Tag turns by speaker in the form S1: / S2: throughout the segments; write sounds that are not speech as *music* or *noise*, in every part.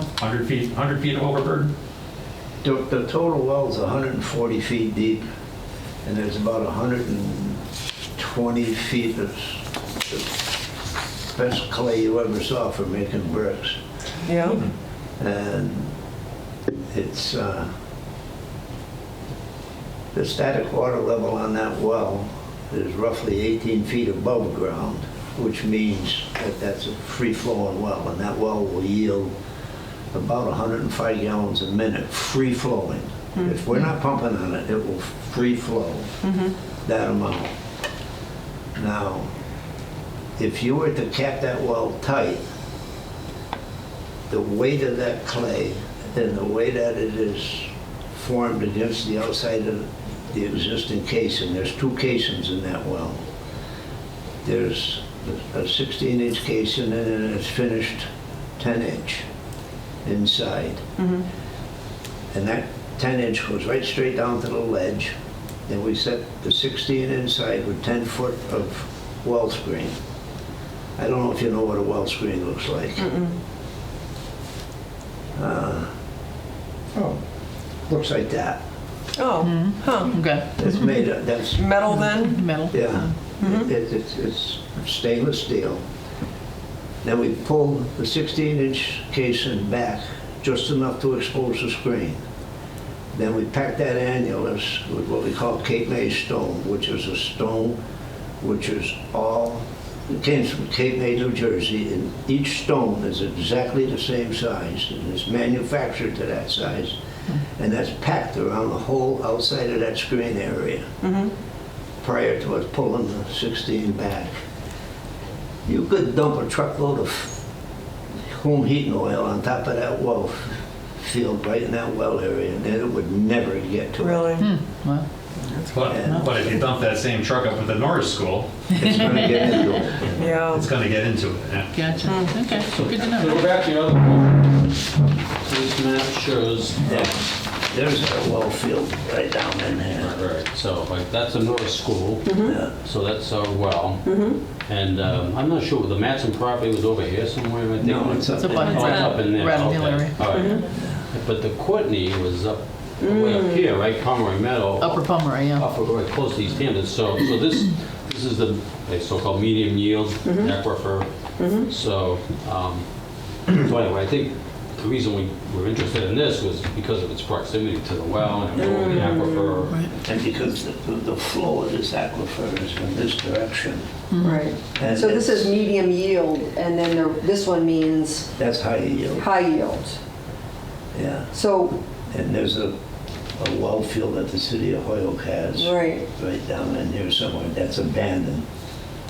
S1: 100 feet, 100 feet of overburden?
S2: The, the total well is 140 feet deep, and there's about 120 feet of s- best clay you ever saw for making bricks.
S3: Yeah.
S2: And it's, uh, the static water level on that well is roughly 18 feet above ground, which means that that's a free-flowing well, and that well will yield about 105 gallons a minute, free-flowing. If we're not pumping on it, it will free flow that amount. Now, if you were to cap that well tight, the weight of that clay and the way that it is formed against the outside of the existing casing, there's two casings in that well. There's a 16-inch casing and then it's finished 10-inch inside. And that 10-inch goes right straight down to the ledge. Then we set the 16 inside with 10-foot of well screen. I don't know if you know what a well screen looks like. Oh, looks like that.
S4: Hmm.
S3: Oh, huh.
S5: Okay,
S2: It's made, of that's,
S3: Metal then?
S5: metal.
S2: yeah, It- it- it's it's stainless steel. Then we pull the 16-inch casing back just enough to expose the screen. Then we pack that annulus with what we call Cape May stone, which is a stone which is all, it came from Cape May, New Jersey, and each stone is exactly the same size, and it's manufactured to that size, and that's packed around the whole outside of that screen area
S6: Mm-hmm.
S2: prior to us pulling the 16 back. You could dump a truckload of home heating oil on top of that well field, right in that well area, and then it would never get
S4: Hmm.
S2: to it.
S3: Really?
S5: Wow.
S1: But, but if you dump that same truck up at the Norris School,
S2: It's gonna get into it.
S3: Yeah.
S1: it's gonna get into it, yeah.
S5: Gotcha.
S6: Hmm.
S5: Okay, good to
S7: So Go
S5: know.
S7: back to the other one. So This map shows,
S2: Yeah. There's a well field right down in there.
S7: right, right, so like, that's a Norris school,
S2: Yeah.
S7: so that's our well. And um, I'm not sure, the Matson property was over here somewhere, I think.
S2: No, it's up
S5: It's a
S2: there.
S5: button.
S7: Oh, it's up in there.
S5: Around
S7: okay,
S5: Hillary.
S7: all right. But the Courtney was up, way up here, right, Pomeroy Meadow.
S5: Upper Pomeroy, yeah.
S7: Upper, right, close to East Hampton, so, so this, this is the a so-called medium yield aquifer. So, um, so anyway, I think the reason we were interested in this was because of its proximity to the well and the aquifer.
S5: Right.
S2: And because the, the flow of this aquifer is in this direction.
S6: Right.
S2: And
S6: So this is
S2: it's-
S6: medium yield, and then there- this one means
S2: That's high yield,
S6: high yield.
S2: yeah.
S6: So,
S2: And there's a, a well field that the city of Hoyoke has.
S6: right,
S2: right down in here somewhere, that's abandoned.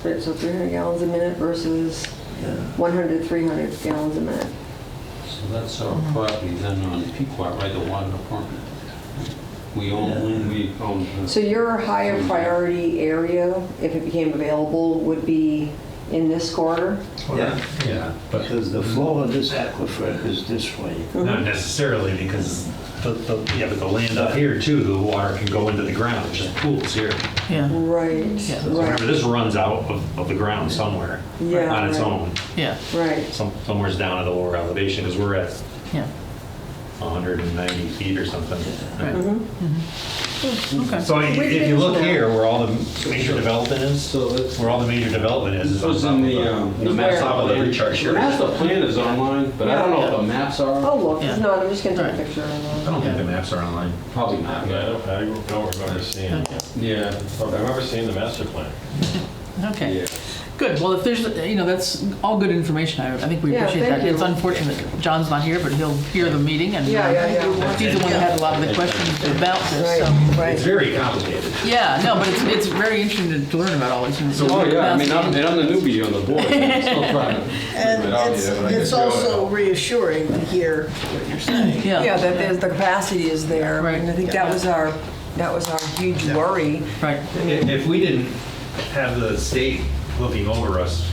S6: Right, so 300 gallons a minute versus
S2: Yeah.
S6: 100, 300 gallons a minute.
S7: So that's our property then on Pequot, right, the water department. We own, we own. uh,
S6: So your higher priority area, if it became available, would be in this corridor?
S2: Yeah,
S1: Yeah, but
S2: because the flow of this aquifer is this way.
S1: not necessarily because, the- the- yeah, but the land up here too, the water can go into the ground, which is pools here.
S5: Yeah,
S6: Right,
S5: Yeah.
S1: Remember,
S6: right,
S1: this runs out of, of the ground somewhere
S6: Yeah,
S1: on its
S6: right.
S1: own,
S5: yeah,
S6: right.
S1: some, somewhere's down at the lower elevation because we're at
S5: yeah.
S1: 190 feet or something.
S5: Right.
S6: Mm-hmm.
S5: Okay.
S1: So i- if you look here, where all the major development is,
S7: So that's.
S1: where all the major development is, is
S7: This
S1: on
S7: was
S1: top
S7: in
S1: of
S7: the,
S1: the,
S7: um, the master
S6: Where?
S1: top of the
S7: plan.
S1: recharge
S7: The
S1: here. I
S7: master plan is online, but I don't know if the maps
S6: Oh,
S7: are.
S6: look,
S5: Yeah.
S6: it's not, I'm just gonna take a
S5: Right.
S6: picture. of it.
S1: don't think the maps are online.
S7: Probably not.
S8: Yeah, I don't, I don't remember seeing it.
S7: Yeah.
S8: I remember seeing the master plan.
S5: Okay,
S7: Yeah.
S5: good. Well, if there's, you know, that's all good information. I I think we
S6: Yeah,
S5: appreciate
S6: thank
S5: that. It's
S6: you.
S5: unfortunate that John's not here, but he'll hear the meeting and
S6: Yeah, yeah,
S5: uh,
S6: yeah.
S5: he's the one that had a lot of the questions about this, so.
S6: Right,
S1: It's
S6: right.
S1: very complicated.
S5: Yeah, no, but it's, it's very interesting to- to learn about all these things.
S7: Oh, yeah, I mean, I'm, and I'm the newbie on the
S4: *laughs*
S7: board, I'm still trying to
S4: And
S7: figure it out
S4: it's,
S7: here, but I
S4: it's
S7: can do it.
S4: also reassuring to hear what you're saying.
S3: Yeah, that there's, the capacity is there. I mean, I
S5: Right.
S3: think that was our, that was our huge worry.
S5: Right,
S1: If if we didn't have the state looking over us,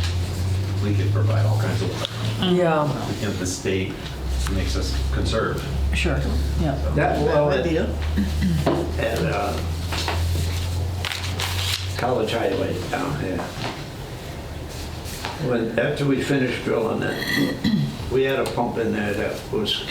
S1: we could provide all kinds of, water.
S4: Hmm.
S3: Yeah.
S1: You know, the state makes us conserve.
S5: sure, yeah.
S2: That well
S4: That
S2: at,
S4: idea.
S2: at, uh, College Highway down here. When, after we finished drilling it, we had a pump in there that was